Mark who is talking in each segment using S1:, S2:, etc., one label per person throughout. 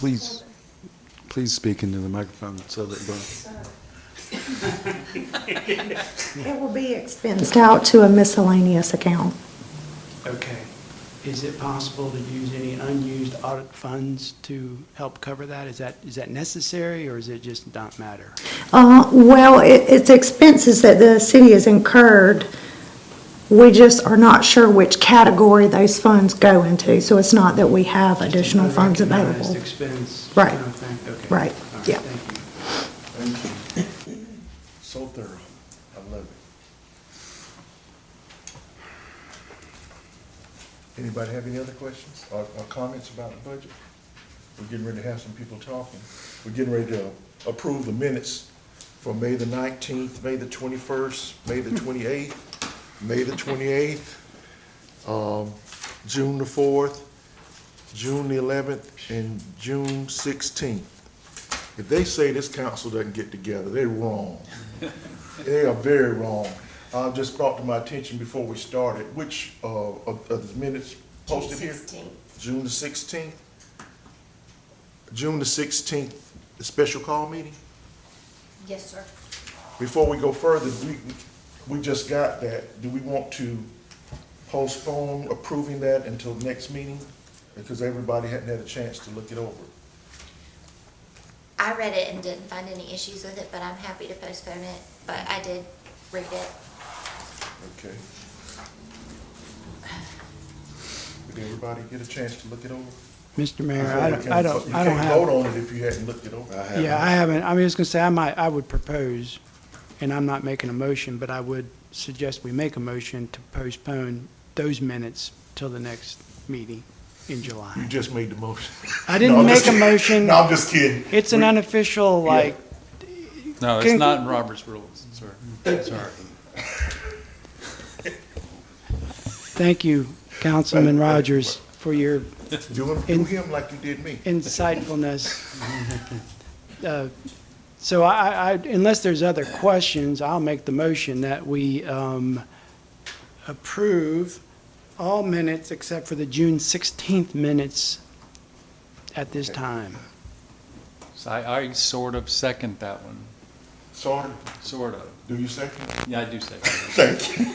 S1: Please, please speak into the microphone so that, the-
S2: It will be expensed out to a miscellaneous account.
S3: Okay. Is it possible to use any unused audit funds to help cover that? Is that, is that necessary, or is it just not matter?
S2: Uh, well, it, it's expenses that the city has incurred. We just are not sure which category those funds go into, so it's not that we have additional funds
S3: Unrecognized
S2: available.
S3: expense
S2: Right.
S3: kind of thing? Okay.
S2: Right.
S3: All right.
S2: Yeah.
S3: Thank you.
S4: So thorough. I love it. Anybody have any other questions or, or comments about the budget? We're getting ready to have some people talking. We're getting ready to approve the minutes for May the nineteenth, May the twenty-first, May the twenty-eighth, May the twenty-eighth, um, June the fourth, June the eleventh, and June sixteenth. If they say this council doesn't get together, they're wrong. They are very wrong. I just brought to my attention before we started, which, uh, of, of the minutes posted here? June the sixteenth. June the sixteenth, the special call meeting?
S5: Yes, sir.
S4: Before we go further, we, we just got that. Do we want to postpone approving that until next meeting? Because everybody hadn't had a chance to look it over.
S5: I read it and didn't find any issues with it, but I'm happy to postpone it, but I did read it.
S4: Okay. Did everybody get a chance to look it over?
S3: Mr. Mayor, Uh, I don't, I don't, I
S4: You
S3: don't
S4: can't
S3: have.
S4: vote on it if you hadn't looked it over.
S3: Yeah, I haven't, I'm just gonna say, I might, I would propose, and I'm not making a motion, but I would suggest we make a motion to postpone those minutes till the next meeting in
S4: You
S3: July.
S4: just made the motion.
S3: I
S4: No,
S3: didn't
S4: I'm
S3: make
S4: just
S3: a
S4: kidding.
S3: motion,
S4: No, I'm just kidding.
S3: it's an unofficial, like,
S6: No, it's
S3: Can-
S6: not in Robert's rules, sir. Sorry.
S3: thank you, Councilman Rogers, for your
S4: Do him, do him like you did me.
S3: insightfulness. Uh, So I, I, unless there's other questions, I'll make the motion that we um, approve all minutes except for the June 16th minutes at this time.
S6: So I, I sort of second that one,
S4: Sorry,
S6: sort of.
S4: do you second?
S6: Yeah, I do second. it.
S4: Thank you.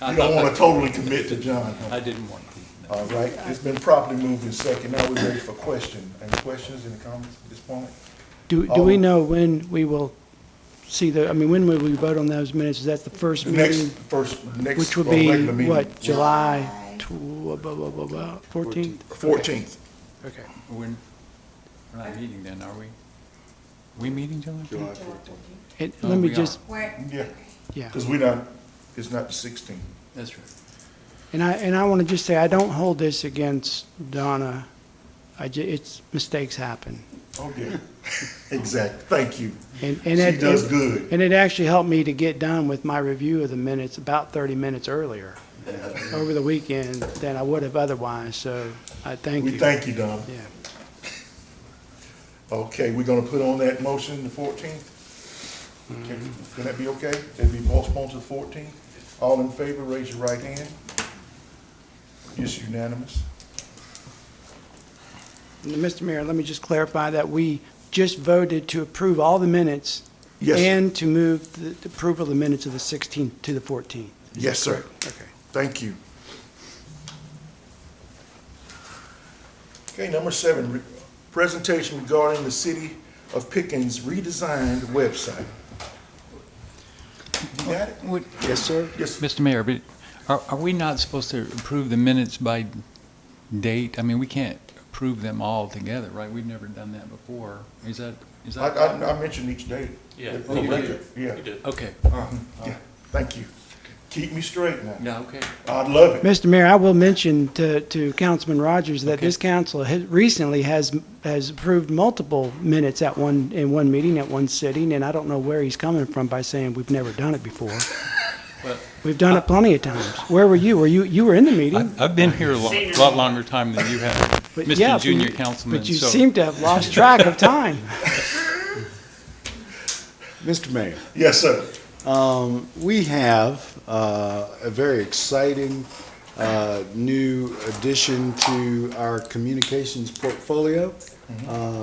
S6: I
S4: You
S6: thought
S4: don't want to
S6: that-
S4: totally commit to John. huh?
S6: I didn't want to.
S4: All right, it's been properly moved in second. Now we're ready for question. Any questions, any comments at this point?
S3: Do, do we
S4: All-
S3: know when we will see the, I mean, when will we vote on those minutes? Is that the first
S4: The next,
S3: meeting?
S4: first, next.
S3: Which will
S4: uh,
S3: be,
S4: regular meeting.
S3: what, July tw- blah, blah, blah, blah, 14th?
S4: Fourteenth.
S3: Okay.
S6: We're, we're not meeting then, are we? We meeting, July?
S3: And
S6: No,
S3: let me
S6: we
S3: just,
S4: Yeah,
S3: yeah.
S4: because we not, it's not the sixteenth.
S6: That's right.
S3: And I, and I want to just say, I don't hold this against Donna. I ju, it's, mistakes happen.
S4: Oh, yeah. Exactly. Thank you.
S3: And
S4: She
S3: and it-
S4: does good.
S3: And it actually helped me to get done with my review of the minutes about 30 minutes earlier over the weekend than I would have otherwise, so I thank you.
S4: We thank you, Don.
S3: Yeah.
S4: Okay, we're gonna put on that motion the fourteenth? Can that be okay? That'd be postponed to the fourteenth? All in favor, raise your right hand. It's unanimous.
S3: And Mr. Mayor, let me just clarify that we just voted to approve all the minutes
S4: Yes, sir.
S3: and to move the the approval of the minutes of the 16th to the 14th.
S4: Yes, sir.
S3: Okay.
S4: Thank you. Okay, number seven, re- presentation regarding the City of Pickens redesigned website. You got it?
S3: Yes, sir.
S4: Yes, sir.
S6: Mr. Mayor, but are, are we not supposed to approve the minutes by date? I mean, we can't approve them all together, right? We've never done that before. Is that, is
S4: I,
S6: that?
S4: I, I mentioned each day. Yeah. Yeah, Uh-huh.
S6: Okay,
S4: yeah, thank you. Keep me straight now.
S6: yeah, okay.
S4: I'd love it.
S3: Mr. Mayor, I will mention to, to Councilman Rogers that
S6: Okay.
S3: this council has, recently has, has approved multiple minutes at one, in one meeting, at one sitting, and I don't know where he's coming from by saying we've never done it before.
S6: Well-
S3: We've done it plenty of times. Where were you? Were you, you were in the meeting?
S6: I've been here a lot, lot longer time than you have,
S3: but yeah,
S6: Mr.
S3: but
S6: Junior
S3: you-
S6: Councilman,
S3: But you
S6: so-
S3: seem to have lost track of time.
S1: Mr. Mayor,
S4: Yes, sir.
S1: um, we have uh, a very exciting uh, new addition to our communications portfolio. Uh,